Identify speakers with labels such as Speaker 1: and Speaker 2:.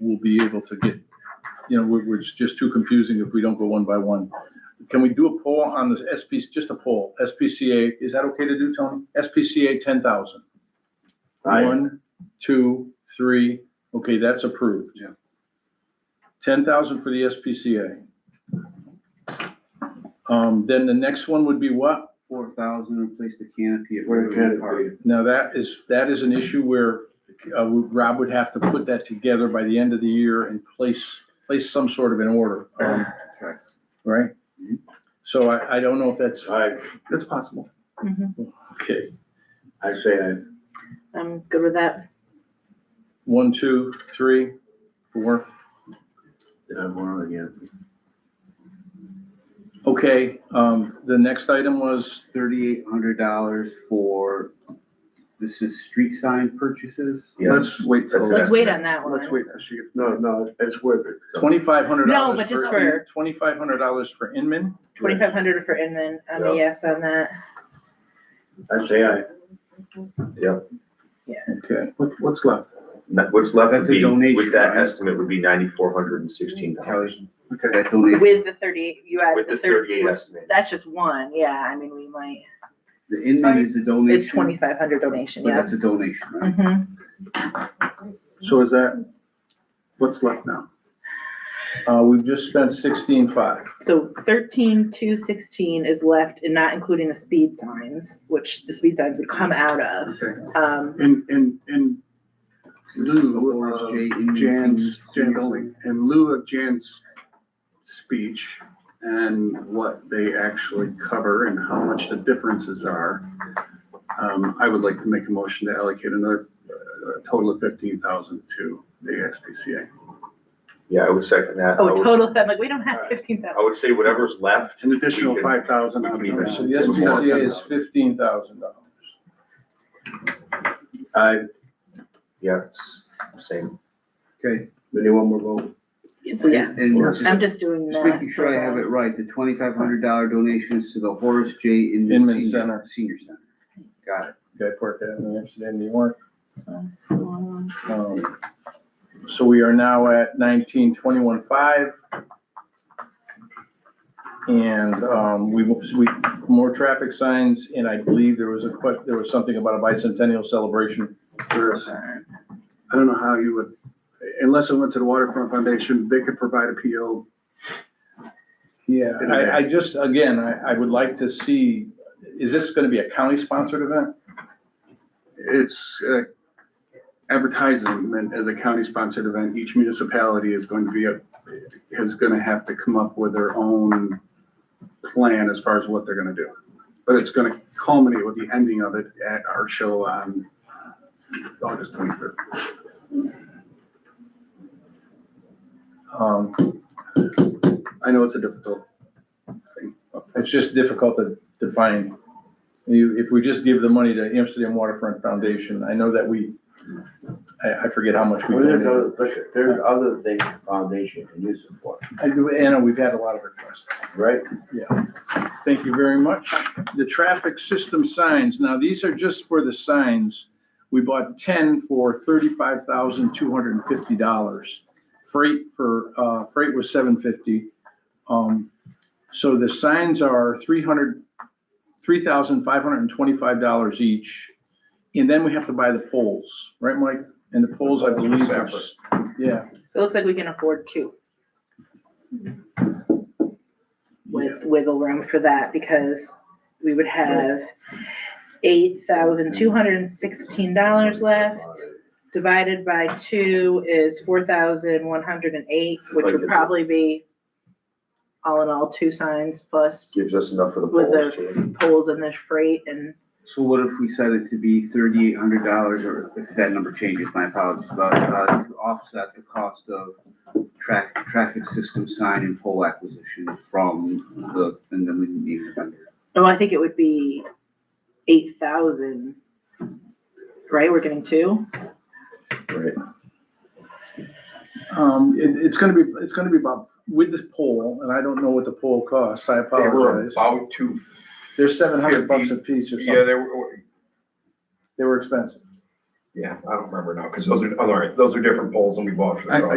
Speaker 1: we'll be able to get, you know, we're, it's just too confusing if we don't go one by one. Can we do a poll on this SPC, just a poll, SPCA, is that okay to do, Tony? SPCA ten thousand.
Speaker 2: I,
Speaker 1: One, two, three, okay, that's approved. Yeah. Ten thousand for the SPCA. Um, then the next one would be what?
Speaker 3: four thousand, replace the canopy at
Speaker 2: Where the
Speaker 3: Riverwood
Speaker 2: canopy.
Speaker 3: Park.
Speaker 1: Now, that is, that is an issue where, uh, Rob would have to put that together by the end of the year and place, place some sort of an order, um,
Speaker 3: Correct.
Speaker 1: right? So I, I don't know if that's,
Speaker 2: I,
Speaker 3: That's possible.
Speaker 4: Mm-hmm.
Speaker 1: okay,
Speaker 2: I say I,
Speaker 4: I'm good with that.
Speaker 1: one, two, three, four.
Speaker 2: did I want it again?
Speaker 1: Okay, um, the next item was,
Speaker 3: Thirty-eight hundred dollars for, this is street sign purchases?
Speaker 5: Let's wait till.
Speaker 2: That's
Speaker 4: Let's wait on that
Speaker 5: Let's
Speaker 4: one.
Speaker 5: wait till she gets.
Speaker 2: No, no, it's worth it.
Speaker 1: Twenty-five hundred
Speaker 4: No,
Speaker 1: dollars.
Speaker 4: but just for-
Speaker 1: Twenty-five hundred dollars for Inman.
Speaker 4: Twenty-five hundred for Inman, I'm a yes on that.
Speaker 2: I say I,
Speaker 1: Okay,
Speaker 5: What, what's left?
Speaker 6: That- What's left
Speaker 3: That's
Speaker 6: would
Speaker 3: a
Speaker 6: be,
Speaker 3: donation,
Speaker 6: with that
Speaker 3: right?
Speaker 6: estimate would be ninety-four hundred and sixteen
Speaker 4: Mm-hmm.
Speaker 6: dollars.
Speaker 3: Kelly,
Speaker 5: Okay,
Speaker 3: that donation,
Speaker 4: With the thirty, you added
Speaker 6: With
Speaker 4: the
Speaker 6: the
Speaker 4: thirty,
Speaker 6: thirty-eight estimate.
Speaker 4: that's just one, yeah, I mean, we might,
Speaker 3: the Inman is a donation.
Speaker 4: it's twenty-five hundred donation,
Speaker 3: But
Speaker 4: yeah.
Speaker 3: that's a donation, right?
Speaker 4: Mhm.
Speaker 5: so is that, what's left now?
Speaker 1: uh, we've just spent sixteen-five.
Speaker 4: So thirteen, two sixteen is left and not including the speed signs, which the speed signs would come out of.
Speaker 5: Okay,
Speaker 4: Um,
Speaker 5: in, in, in lieu
Speaker 2: uh,
Speaker 3: Horace J.
Speaker 5: of
Speaker 3: Inman
Speaker 5: Uh, Jan's,
Speaker 3: Senior
Speaker 5: Jan
Speaker 3: Building.
Speaker 5: in lieu of Jan's speech and what they actually cover and how much the differences are, um, I would like to make a motion to allocate another, uh, a total of fifteen thousand to the ASPCA.
Speaker 6: Yeah, I would second that. I
Speaker 4: oh,
Speaker 6: would-
Speaker 4: total, I'm like, we don't have fifteen
Speaker 6: I
Speaker 4: thousand.
Speaker 6: would say whatever's left,
Speaker 5: An additional
Speaker 6: We can-
Speaker 5: five thousand.
Speaker 6: we can even-
Speaker 1: So the SPCA is fifteen thousand dollars.
Speaker 2: I,
Speaker 6: yeah, s- same.
Speaker 3: Okay.
Speaker 2: anyone more vote?
Speaker 4: Yeah,
Speaker 3: And
Speaker 4: I'm just doing that.
Speaker 3: just making sure I have it right, the twenty-five hundred dollar donation is to the Horace J. Inman
Speaker 1: Inman
Speaker 3: Senior,
Speaker 1: Center.
Speaker 3: Senior Center. Got it.
Speaker 1: Guy Park Avenue, Amsterdam, New York.
Speaker 4: it.
Speaker 1: Um, So we are now at nineteen twenty-one five. And um, we, we, more traffic signs, and I believe there was a, que- there was something about a bicentennial celebration.
Speaker 5: Whereas, I don't know how you would, unless it went to the Waterfront Foundation, they could provide a PO.
Speaker 1: Yeah. I, I just, again, I, I would like to see, is this gonna be a county-sponsored event?
Speaker 5: It's uh, advertisement as a county-sponsored event. Each municipality is going to be, a is going to have to come up with their own plan as far as what they're going to do. But it's going to culminate with the ending of it at our show on August 23rd.
Speaker 1: Um,
Speaker 5: I know it's a difficult
Speaker 1: It's just difficult to define. You, if we just give the money to Amsterdam Waterfront Foundation, I know that we, I, I forget how much we
Speaker 2: Well, There's
Speaker 1: donated.
Speaker 2: other, look, there's other things the foundation can use it for,
Speaker 1: I do, Anna, we've had a lot of requests.
Speaker 2: right?
Speaker 1: Thank you very much. The traffic system signs, now these are just for the signs. We bought ten for thirty-five thousand two hundred and fifty dollars. Freight for, uh, freight was seven fifty. Um, so the signs are three hundred, three thousand five hundred and twenty-five dollars each. And then we have to buy the poles, right, Mike? And the poles, I believe, are, s- yeah.
Speaker 4: So it looks like we can afford two.
Speaker 1: Yeah.
Speaker 4: with wiggle room for that because we would have eight thousand two hundred and sixteen dollars left. Divided by two is four thousand one hundred and eight, which would probably be all in all, two signs plus
Speaker 6: Gives us enough for the
Speaker 4: With
Speaker 6: polls.
Speaker 4: the-
Speaker 6: too.
Speaker 4: poles and the freight and
Speaker 3: So what if we set it to be thirty-eight hundred dollars, or if that number changes, my apologies, but, uh, to offset the cost of track, traffic system sign and pole acquisition from the, and then we need the vendor.
Speaker 4: Oh, I think it would be eight thousand. Right, we're getting two?
Speaker 1: Um, it, it's gonna be, it's gonna be about, with this pole, and I don't know what the pole costs, I
Speaker 7: They were
Speaker 1: apologize.
Speaker 7: about to,
Speaker 1: They're seven hundred bucks a piece or
Speaker 7: yeah,
Speaker 1: something.
Speaker 7: they were,
Speaker 1: They were expensive.
Speaker 7: oh, yeah, I don't remember now, because those are, all right, those are different poles than we bought for the.
Speaker 5: I-
Speaker 7: dog.